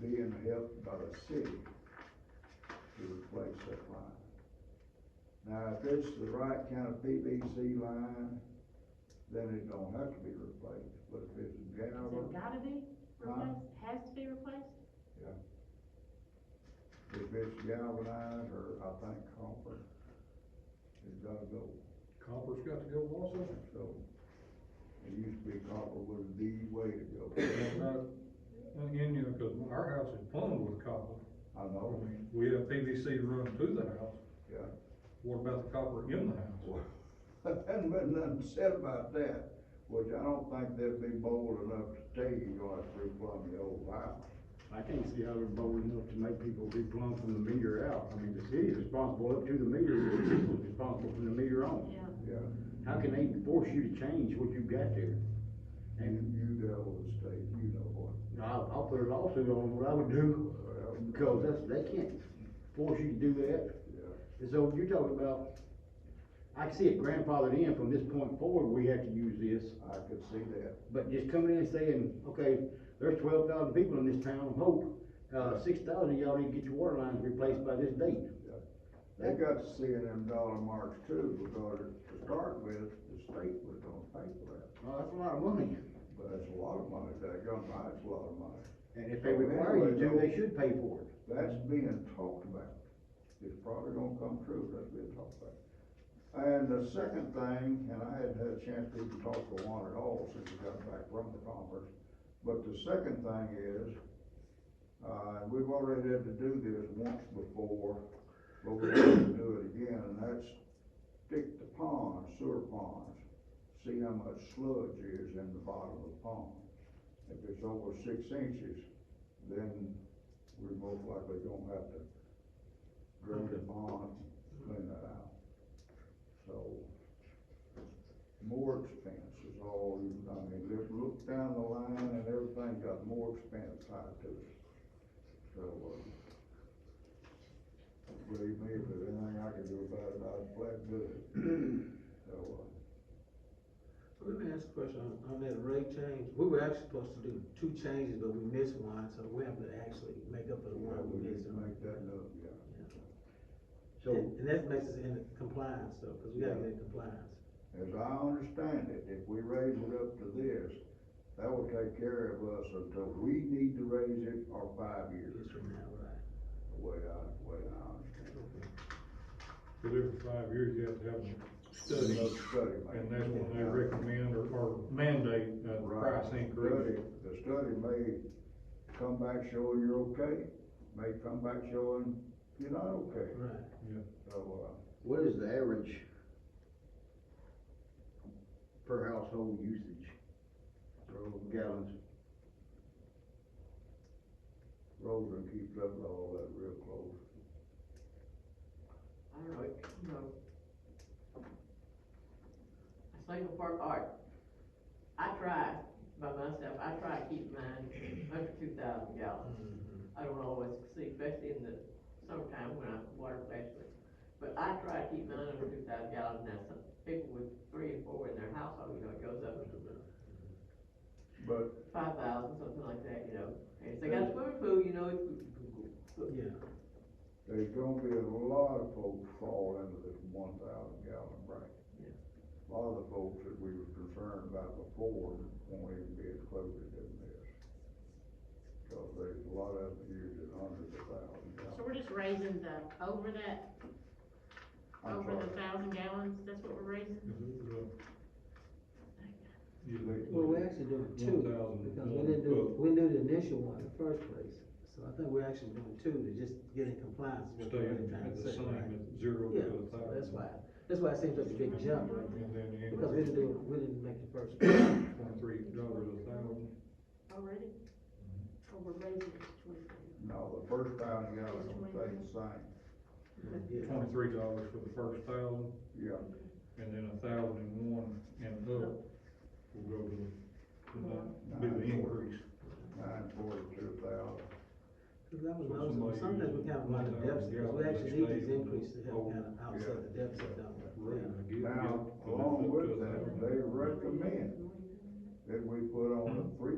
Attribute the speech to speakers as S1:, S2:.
S1: being helped by the city to replace that line. Now, if it's the right kind of PVC line, then it don't have to be replaced, but if it's
S2: Has
S1: galvan,
S2: it gotta be replaced, has to be replaced?
S1: if it's galvanized, or I think copper, it's gotta go.
S3: Copper's got to go also.
S1: So, it used to be copper was the way to go.
S3: And again, you know, cause our house is plumbed with copper,
S1: I
S3: I
S1: know,
S3: mean, we have PVC run to the house,
S1: yeah.
S3: what about the copper in the house?
S1: Well, Hasn't been nothing said about that, which I don't think they'd be bold enough to tell you you're gonna have to replumb the old house.
S4: I can't see how they're bold enough to make people be plumb from the meter out. I mean, the city's responsible up to the meter, but the people's responsible from the meter on.
S2: Yeah,
S1: Yeah,
S4: How can they force you to change what you've got there?
S1: you,
S4: And
S1: you deal with the state, you know what.
S4: I'll, I'll put a lawsuit on what I would do,
S1: Well,
S4: uh, because that's, they can't force you to do that.
S1: Yeah,
S4: And so you're talking about, I can see it grandfathered in from this point forward, we have to use this.
S1: I could see that,
S4: But just coming in and saying, okay, there's twelve thousand people in this town of Hope, uh, six thousand y'all need to get your water lines replaced by this date.
S1: they got to see in them dollar marks too, because to start with, the state was gonna pay for that.
S4: Well, that's a lot of money,
S1: But that's a lot of money, that gun buy's a lot of money.
S4: and if they require you to, they should pay for it.
S1: That's being talked about. It's probably gonna come true, that's being talked about. And the second thing, and I hadn't had a chance to even talk to one at all since we got back from the conference, but the second thing is, uh, we've already had to do this once before, but we're going to do it again, and that's stick the ponds, sewer ponds, see how much sludge is in the bottom of the pond. If it's over six inches, then we're most likely gonna have to drain the pond, clean that out. So, more expense is all, you- I mean, look, look down the line and everything got more expense tied to it. So, uh, believe me, if there's anything I can do about it, I'd flat do it. So, uh,
S5: So Let me ask a question on, on that rate change. We were actually supposed to do two changes, but we missed one, so we have to actually make up for the
S1: yeah,
S5: one
S1: we
S5: we
S1: need
S5: missed.
S1: to make that up, yeah.
S4: So,
S5: And, and that makes us in compliance though, cause we gotta
S1: Yeah.
S5: get in compliance.
S1: As I understand it, if we raise it up to this, that will take care of us until we need to raise it or five years,
S5: Years from now, right?
S1: the way I, the way I
S3: Cause every five years you have to have a
S1: understand.
S3: study,
S1: Another Study. may-
S3: and that's when they recommend or, or mandate a
S1: Right.
S3: price increase.
S1: Study- The study may come back showing you're okay, may come back showing you're not okay,
S5: Right.
S1: so, uh,
S4: what is the average per household usage
S1: uh, Rosen,
S4: gallons?
S1: Rosen keeps up with all that real close.
S6: I don't know, it, you know. A single part, all right, I try by myself, I try to keep mine under two thousand gallons.
S5: Mm-hmm.
S6: I don't always succeed, especially in the summertime when I'm water specialist. But I try to keep mine under two thousand gallons, now some people with three and four in their household, you know, it goes up to
S1: But
S6: five thousand, something like that, you know. And if they got a swimming pool, you know, it's.
S5: Yeah,
S1: there's gonna be a lot of folks fall into this one thousand gallon bracket.
S6: Yeah.
S1: A lot of the folks that we were concerned about before won't even be as close as them this. Cause there's a lot of them using hundreds of thousand
S2: so
S1: gallons.
S2: we're just raising the, over that,
S1: I'm
S2: over the
S1: sorry.
S2: thousand gallons, that's what we're raising?
S3: Mm-hmm. Uh,
S7: Well, we're actually doing two, because we didn't do, we didn't do the initial one in the first place.
S5: so I think we're actually doing two to just get in compliance. with what
S3: Stay
S5: they're
S3: in
S5: trying to
S3: at the
S5: say,
S3: same,
S5: right?
S3: at zero
S5: Yeah,
S3: to a
S5: so
S3: thousand.
S5: that's why, that's why it seems like a big jump right
S3: And then you
S5: there, because we
S3: increase
S5: didn't
S3: it
S5: do, we didn't make the first. one.
S3: twenty-three dollars a thousand.
S2: Already? Or we're raising it to twenty-three?
S1: No, the first thousand gallons will stay the same,
S5: Yeah.
S3: twenty-three dollars for the first thousand,
S1: yeah,
S3: and then a thousand and one and up will go to, to that, be the increase.
S1: nine forty-two thousand.
S5: Cause that was,
S3: So
S5: my was,
S3: somebody
S5: sometimes we
S3: using
S5: kind of run a
S3: 1,000
S5: deficit, 'cause
S3: gallons
S5: we actually
S3: each day for
S5: need these
S3: the
S5: increases to help
S3: whole-
S5: kind of
S1: yeah.
S5: offset the deficit, don't we?
S3: Right,
S5: Yeah.
S3: I get-
S1: Now,
S3: get-
S1: along with
S3: get to a
S1: that,
S3: thousand.
S1: they recommend that we put on a three